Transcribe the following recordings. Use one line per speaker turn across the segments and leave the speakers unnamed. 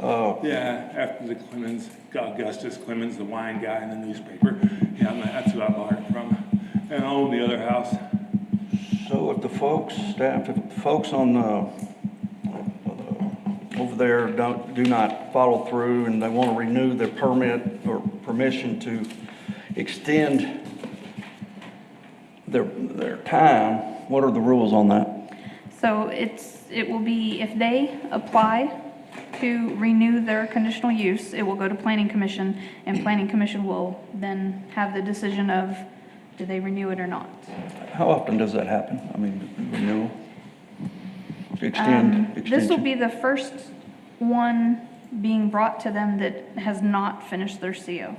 Oh,
Yeah, after the Clemens, Augustus Clemens, the wine guy in the newspaper. Yeah, I'm- that's who I bought it from. And I own the other house.
so if the folks, staff, if the folks on, uh, over there don't, do not follow through and they want to renew their permit or permission to extend their, their time, what are the rules on that?
So it's, it will be, if they apply to renew their conditional use, it will go to planning commission, and planning commission will then have the decision of, do they renew it or not?
How often does that happen? I mean, renewal? Extend,
Um, This will
extension?
be the first one being brought to them that has not finished their CO.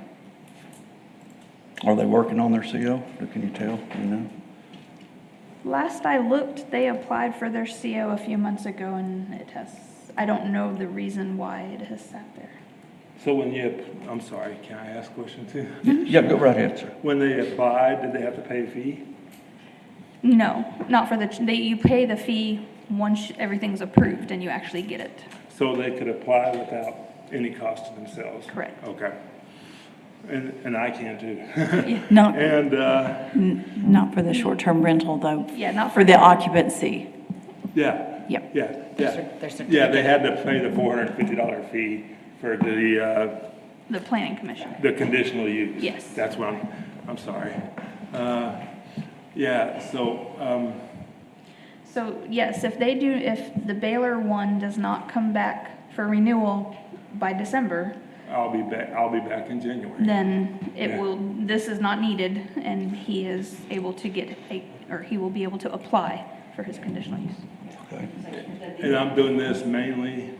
Are they working on their CO? Or Can you tell, you know?
Last I looked, they applied for their CO a few months ago, and it has, I don't know the reason why it has sat there.
So when you, I'm sorry, can I ask a question too?
Yeah, go right ahead, sir.
When they applied, did they have to pay a fee?
No, not for the, they, you pay the fee once everything's approved and you actually get it.
So they could apply without any cost to themselves?
Correct.
Okay. And, and I can too.
Not,
And, uh,
not for the short-term rental, though.
Yeah, not
For
for,
the occupancy.
yeah.
Yep.
Yeah,
cer-
yeah.
their
Yeah, they had to pay the four hundred and fifty dollar fee for the, uh,
the planning commission.
The conditional use?
Yes.
That's what I'm, I'm sorry. Uh, Yeah, so, um,
So yes, if they do, if the Baylor one does not come back for renewal by December,
I'll be back, I'll be back in January.
then
Yeah.
it will, this is not needed and he is able to get a, or he will be able to apply for his conditional use.
Okay.
And I'm doing this mainly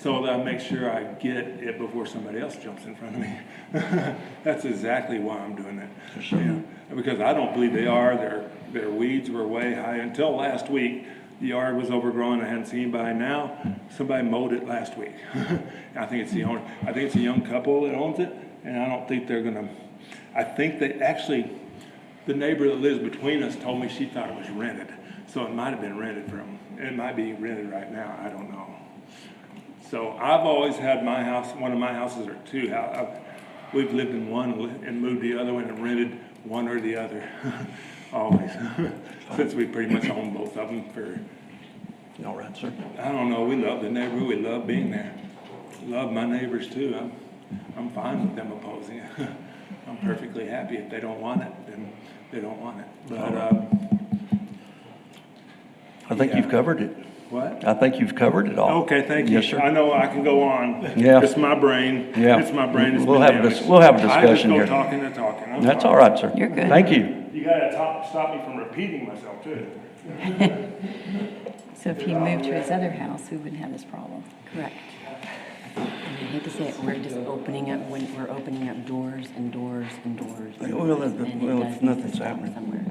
so that I make sure I get it before somebody else jumps in front of me. That's exactly why I'm doing it. Yeah, Because I don't believe they are, their, their weeds were way high, until last week, the yard was overgrown, I hadn't seen by now, somebody mowed it last week. I think it's the owner, I think it's a young couple that owns it, and I don't think they're gonna, I think they, actually, the neighbor that lives between us told me she thought it was rented, so it might have been rented from, it might be rented right now, I don't know. So I've always had my house, one of my houses or two, hou- I've, we've lived in one li- and moved the other one and rented one or the other, always. Since we pretty much own both of them for,
All right, sir.
I don't know, we love the neighborhood, we love being there. Love my neighbors too, I'm, I'm fine with them opposing it. I'm perfectly happy if they don't want it, then they don't want it. But, um,
I think you've covered it.
what?
I think you've covered it all.
Okay, thank you.
Yes, sir.
I know I can go on.
Yeah.
It's my brain.
Yeah.
It's my brain. It's
We'll
been
have a dis-
damaged.
we'll have a
I just
discussion
go
here.
talking and talking. I'm
That's
sorry.
all right, sir.
You're good.
Thank you.
You gotta top, stop me from repeating myself too.
So if he moved to his other house, we wouldn't have this problem.
Correct. I hate to say it, we're just opening up, when- we're opening up doors and doors and doors. and
Well,
doors,
if-
and it
well, if
does
nothing's
stop
happening.
Somewhere.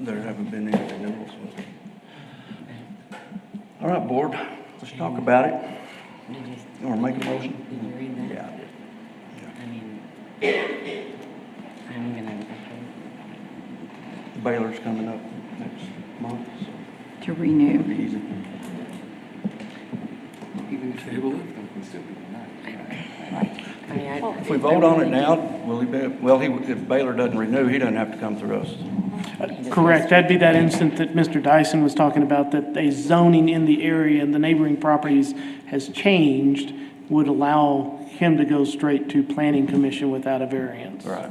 There haven't been any renewals. All right, board, let's talk about it.
Did you?
You wanna make a motion?
Did you read that?
Yeah.
I mean, I'm gonna,
Baylor's coming up next month, so
To renew.
it'll be easy.
I mean, I.
If we vote on it now, will he be, well, he, if Baylor doesn't renew, he doesn't have to come through us.
Correct, that'd be that instant that Mr. Dyson was talking about, that a zoning in the area and the neighboring properties has changed, would allow him to go straight to planning commission without a variance.
Right.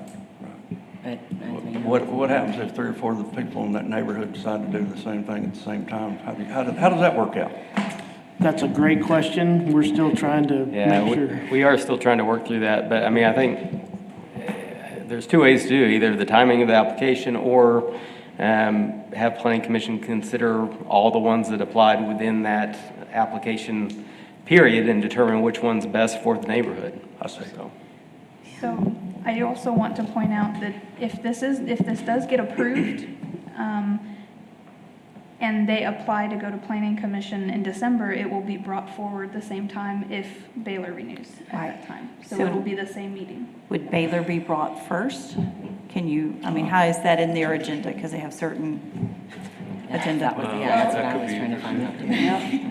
But, I mean.
What, what happens if three or four of the people in that neighborhood decide to do the same thing at the same time? How do, you- how do- how does that work out?
That's a great question, we're still trying to
Yeah,
make sure.
we- we are still trying to work through that, but I mean, I think eh, there's two ways to do, it, either the timing of the application or um, have planning commission consider all the ones that applied within that application period and determine which one's best for the neighborhood.
I see.
So,
So I also want to point out that if this is, if this does get approved, um, and they apply to go to planning commission in December, it will be brought forward the same time if Baylor renews at that
Right.
time. So
So-
it will be the same meeting.
Would Baylor be brought first? Can you, I mean, how is that in their agenda? Because they have certain agenda.
Uh, Yeah, that's what I was trying to find out.